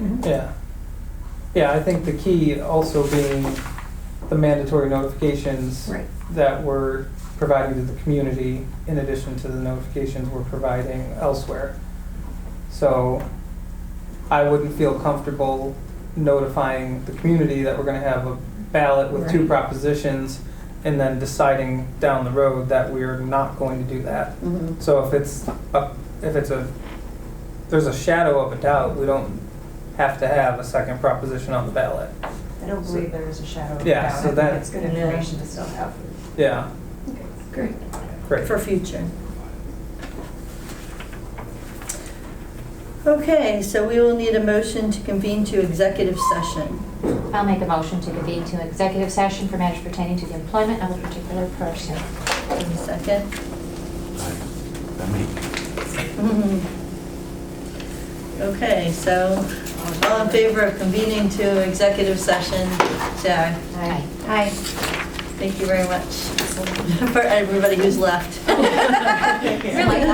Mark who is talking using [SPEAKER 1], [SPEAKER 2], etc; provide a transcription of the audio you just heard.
[SPEAKER 1] Mm-hmm.
[SPEAKER 2] Yeah. Yeah, I think the key also being the mandatory notifications
[SPEAKER 1] Right.
[SPEAKER 2] that we're providing to the community in addition to the notifications we're providing elsewhere. So I wouldn't feel comfortable notifying the community that we're gonna have a ballot with two
[SPEAKER 1] Right.
[SPEAKER 2] propositions and then deciding down the road that we're not going to do that.
[SPEAKER 1] Mhm.
[SPEAKER 2] So if it's, a- if it's a, there's a shadow of a doubt, we don't have to have a second proposition on the ballot.
[SPEAKER 3] I don't believe there is a shadow of a
[SPEAKER 2] Yeah,
[SPEAKER 3] doubt.
[SPEAKER 2] so
[SPEAKER 3] I think
[SPEAKER 2] that-
[SPEAKER 3] It's good
[SPEAKER 1] Yeah.
[SPEAKER 3] information to still have.
[SPEAKER 2] Yeah,
[SPEAKER 1] Great,
[SPEAKER 2] great.
[SPEAKER 1] for future. Okay, so we will need a motion to convene to executive session.
[SPEAKER 4] I'll make a motion to convene to executive session for matters pertaining to the employment of a particular person.
[SPEAKER 1] Give me a Second. Okay, so all in favor of convening to executive session, say aye.
[SPEAKER 4] Aye.
[SPEAKER 1] Aye. Thank you very much for everybody who's left.
[SPEAKER 4] Really?